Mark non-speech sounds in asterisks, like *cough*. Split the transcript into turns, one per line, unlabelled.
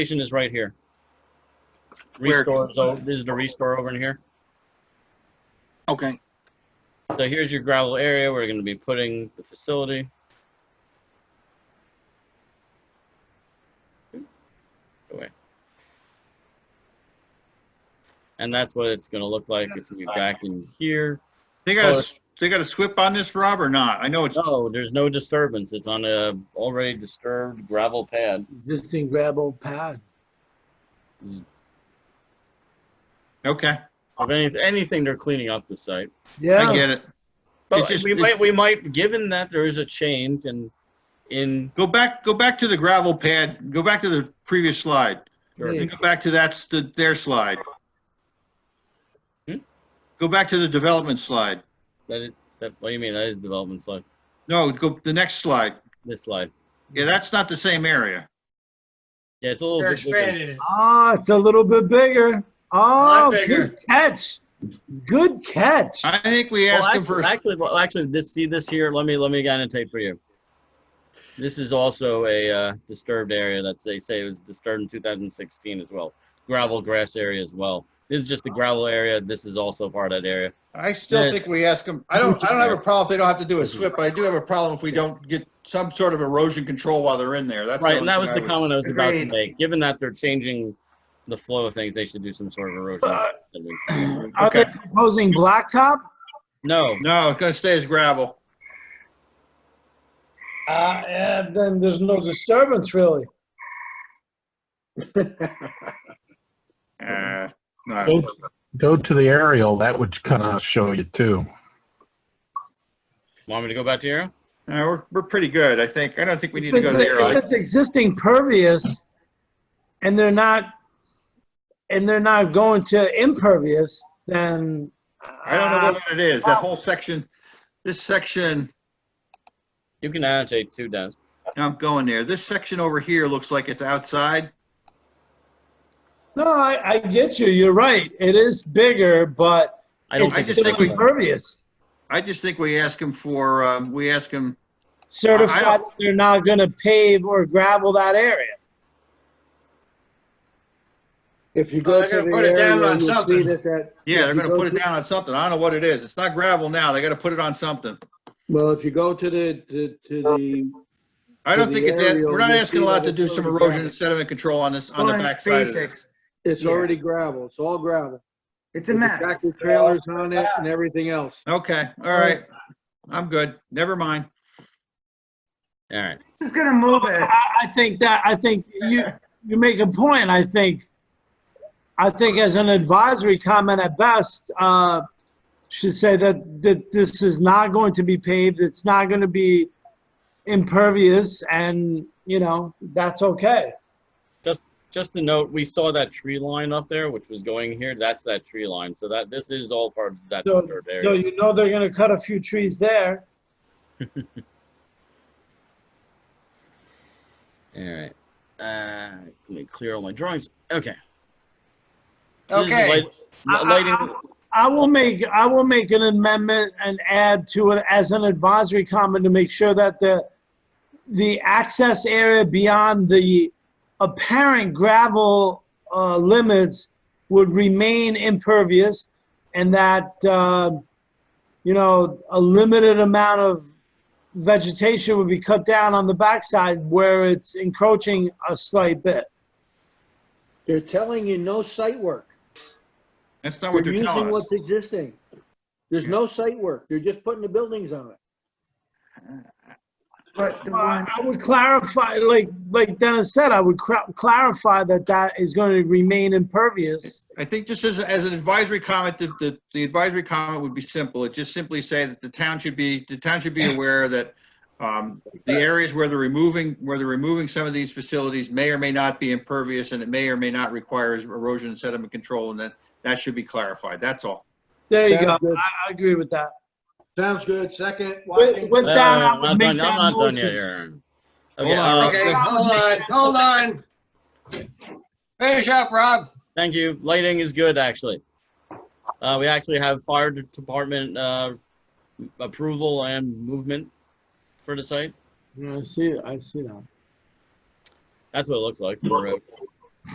Station is right here.
Where?
Restore, so this is the restore over in here.
Okay,
So here's your gravel area. We're gonna be putting the facility. Away. And that's what it's gonna look like. It's gonna be back in here.
they got a, they got a SWIP on this, Rob, or not? I know it's,
No, there's no disturbance. It's on a already disturbed gravel pad.
existing gravel pad.
okay,
If any- anything, they're cleaning up the site.
I
Yeah,
get it.
But
It's just-
we
it-
might, we might, given that there is a change and in,
Go back, go back to the gravel pad, go back to the previous slide.
Yeah.
And go back to that's the, their slide.
Hmm?
Go back to the development slide.
that, it- that, what do you mean? That is development slide,
No, go, the next slide.
this slide.
Yeah, that's not the same area.
Yeah, it's a little
They're
bit different.
expanding it.
ah, it's a little bit bigger. Oh,
Lot bigger.
good catch. Good catch.
I think we
Well,
asked them
actually,
for,
actually, well, actually, this, see this here, let me, let me annotate for you. This is also a uh, disturbed area that they say was disturbed in 2016 as well. Gravel grass area as well. This is just the gravel area. This is also part of that area.
I still
Yes.
think we ask them, I don't, I don't have a problem if they don't have to do a SWIP, but I do have a problem if we don't get some sort of erosion control while they're in there. That's.
Right, and
only
that was
thing
the
I
comment I was about to
Agreed.
make. Given that they're changing the flow of things, they should do some sort of erosion.
Uh, *clears throat*
I
Are they
okay.
proposing blacktop?
No,
No, it's gonna stay as gravel.
Uh, yeah, then there's no disturbance really.
Uh, no.
Go, go to the aerial, that would kind of show you too.
want me to go back to here?
No, Uh, we're, we're pretty good, I think. I don't think we need to
If
go
it's-
there.
if
I-
It's existing pervious and they're not, and they're not going to impervious, then. uh,
I don't
uh,
know what it is, that whole section, this section,
You can annotate too, Dennis.
I'm going there. This section over here looks like it's outside.
No, I, I get you. You're right. It is bigger, but
I don't
it's
I
think.
just
still
think we-
impervious.
I just think we ask them for, um, we ask them,
Certified that they're not gonna pave or gravel that area.
If you
Well,
go
they're
to
gonna
the
put it down
area,
on
you'll see
something.
that that.
yeah,
if
they're
you
gonna
go
put it
to-
down on something. I don't know what it is. It's not gravel now. They gotta put it on something.
Well, if you go to the, to, to the,
I don't
To
think
the
it's, that-
aerial,
we're not
you
asking a
see
lot
that
to do
it's
some
already
erosion and
gravel.
sediment control on this, on the
Well, it's
backside of
basic.
this.
it's
Yeah.
already gravel, it's all gravel.
It's a
With the
mess.
Tractor trailers on it and everything else.
Okay, all right. I'm good. Never mind.
All right.
Who's gonna move it?
I, I think that, I think you, you make a point, I think. I think as an advisory comment at best, uh, should say that, that this is not going to be paved, it's not gonna be impervious, and, you know, that's okay.
Just to note, we saw that tree line up there, which was going here. That's that tree line. So that, this is all part of that
So,
disturbed
so
area.
you know they're gonna cut a few trees there.
All right. Uh, let me clear all my drawings. Okay. This is the
Okay,
light- Lighting,
I will make, I will make an amendment and add to it as an advisory comment to make sure that the, the access area beyond the apparent gravel, uh, limits would remain impervious and that, uh, you know, a limited amount of vegetation would be cut down on the backside where it's encroaching a slight bit.
They're telling you no site work.
That's not
They're
what they're
using
telling us.
what's existing. There's no site work, they're just putting the buildings on it.
But the
Uh,
one,
I would clarify, like, like Dennis said, I would cra- clarify that that is going to remain impervious.
I think just as, as an advisory comment, the, the, the advisory comment would be simple. It just simply say that the town should be, the town should be aware that, um, the areas where they're removing, where they're removing some of these facilities may or may not be impervious and it may or may not require erosion and sediment control and that, that should be clarified. That's all.
There you go.
Sounds good.
I, I agree with that.
Sounds good, second.
With,
Watkins.
with
No,
that,
no,
I
no,
would
I'm not
make
done-
that
I'm not done yet,
motion.
Aaron.
Hold
Okay,
on,
uh,
okay, hold on, hold on. Finish up, Rob.
thank you. Lighting is good, actually. Uh, we actually have fire department, uh, approval and movement for the site.
Yeah, I see, I see that.
That's what it looks like. from the road.